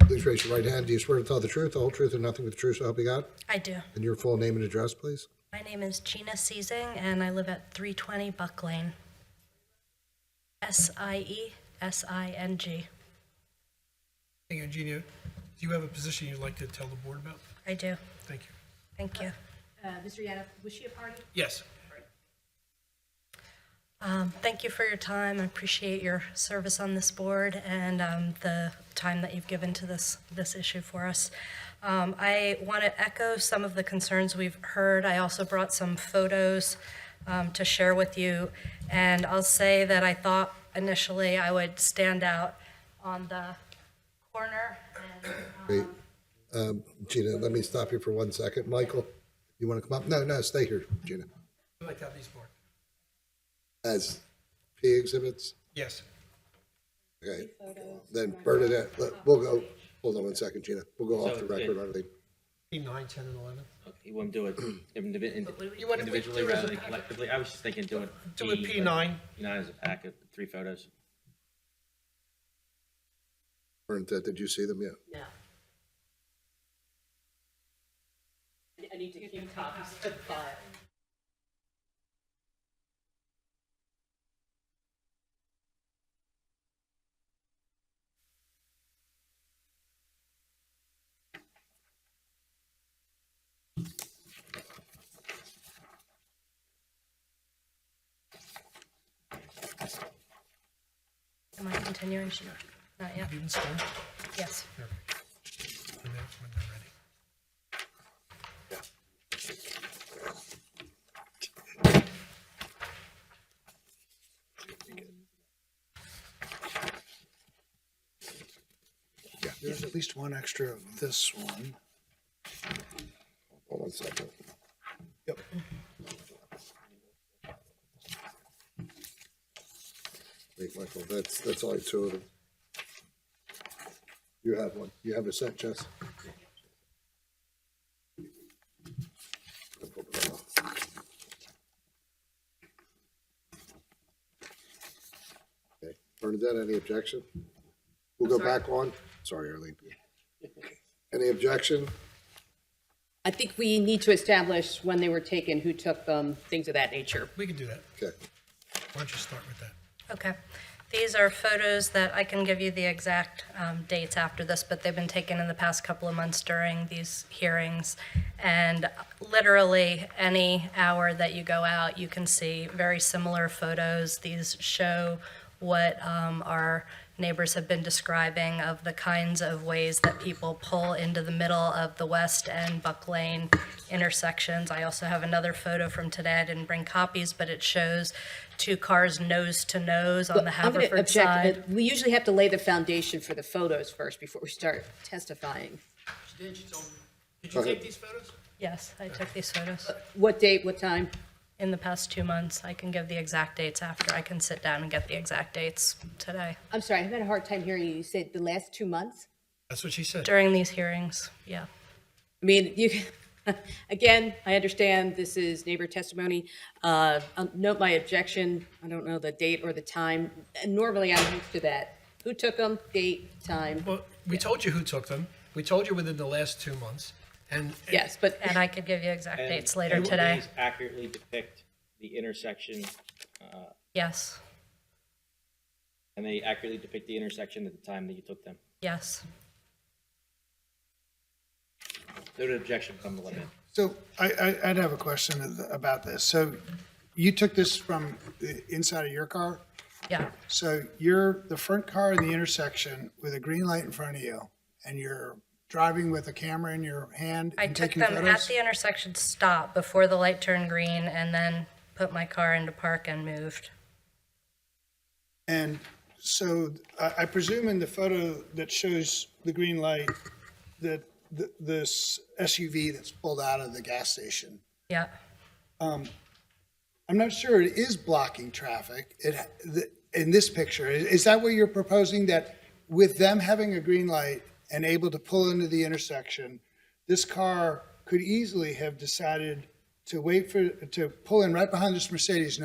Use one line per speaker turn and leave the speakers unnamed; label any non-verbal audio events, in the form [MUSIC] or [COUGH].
Please raise your right hand. Do you swear to tell the truth, the whole truth, and nothing but the truth so help you God?
I do.
And your full name and address, please?
My name is Gina Seizing, and I live at 320 Buck Lane. S I E S I N G.
Thank you, Eugenia. Do you have a position you'd like to tell the board about?
I do.
Thank you.
Thank you.
Uh, Mr. Yana, was she a party?
Yes.
Um, thank you for your time. I appreciate your service on this board and um, the time that you've given to this, this issue for us. Um, I want to echo some of the concerns we've heard. I also brought some photos um, to share with you. And I'll say that I thought initially I would stand out on the corner and
Wait, um, Gina, let me stop you for one second. Michael, you want to come up? No, no, stay here, Gina.
I'd like to have these marked.
As P exhibits,
Yes.
okay. Then Bernadette, let- we'll go, hold on one second, Gina. We'll go off
So,
the record
yeah.
on everything.
Be Nine, 10, and 11.
You wouldn't
[CLEARS THROAT]
do it indivi- indi-
You wouldn't-
individually
do it as a
rather than
packet.
collectively? I was just thinking doing.
Do it
P, but
P9.
P9 is a packet, three photos.
Bernadette, uh, did you see them yet?
No. I- I need to keep copies of the file.
Am I continuing? Sure. Not yet.
Even still?
Yes.
There. When they're- when they're ready.
There's at least one extra of this one.
Hold on a second.
Yep.
Wait, Michael, that's, that's only two of them. You have one. You have a set, Jess? Okay. Bernadette, any objection? We'll go back on. Sorry, Arlene. Any objection?
I think we need to establish when they were taken, who took them, things of that nature.
We can do that.
Okay.
Why don't you start with that?
Okay. These are photos that I can give you the exact um, dates after this, but they've been taken in the past couple of months during these hearings. And literally, any hour that you go out, you can see very similar photos. These show what um, our neighbors have been describing of the kinds of ways that people pull into the middle of the West and Buck Lane intersections. I also have another photo from today. I didn't bring copies, but it shows two cars nose to nose on the
I'm going to
Haverford
object.
side.
that We usually have to lay the foundation for the photos first before we start testifying.
Did you
Okay.
take these photos?
Yes, I took these photos
What date, what time?
in the past two months. I can give the exact dates after. I can sit down and get the exact dates today.
I'm sorry, I've had a hard time hearing you. You said the last two months?
That's what she said.
During these hearings, yeah.
I mean, you, [LAUGHS] again, I understand this is neighbor testimony. Uh, I'll Note my objection, I don't know the date or the time. Normally, I'm used to that. Who took them, date, time?
Well, we told you who took them. We told you within the last two months. And
Yes, but
And I could give you exact
And
dates later
do
today.
these Accurately depict the intersection,
Yes,
and they accurately depict the intersection at the time that you took them.
yes.
Noted objection from the limit.
So I, I, I'd have a question of- about this. So you took this from the inside of your car?
Yeah,
So you're the front car in the intersection with a green light in front of you and you're driving with a camera in your hand
I
and
took
taking
them at
photos?
the intersection stop before the light turned green and then put my car into park and moved.
And so I, I presume in the photo that shows the green light that th- this SUV that's pulled out of the gas station
Yeah,
I'm not sure it is blocking traffic it, the- in this picture. Is is that what you're proposing, that with them having a green light and able to pull into the intersection, this car could easily have decided to wait for, to pull in right behind this Mercedes, knowing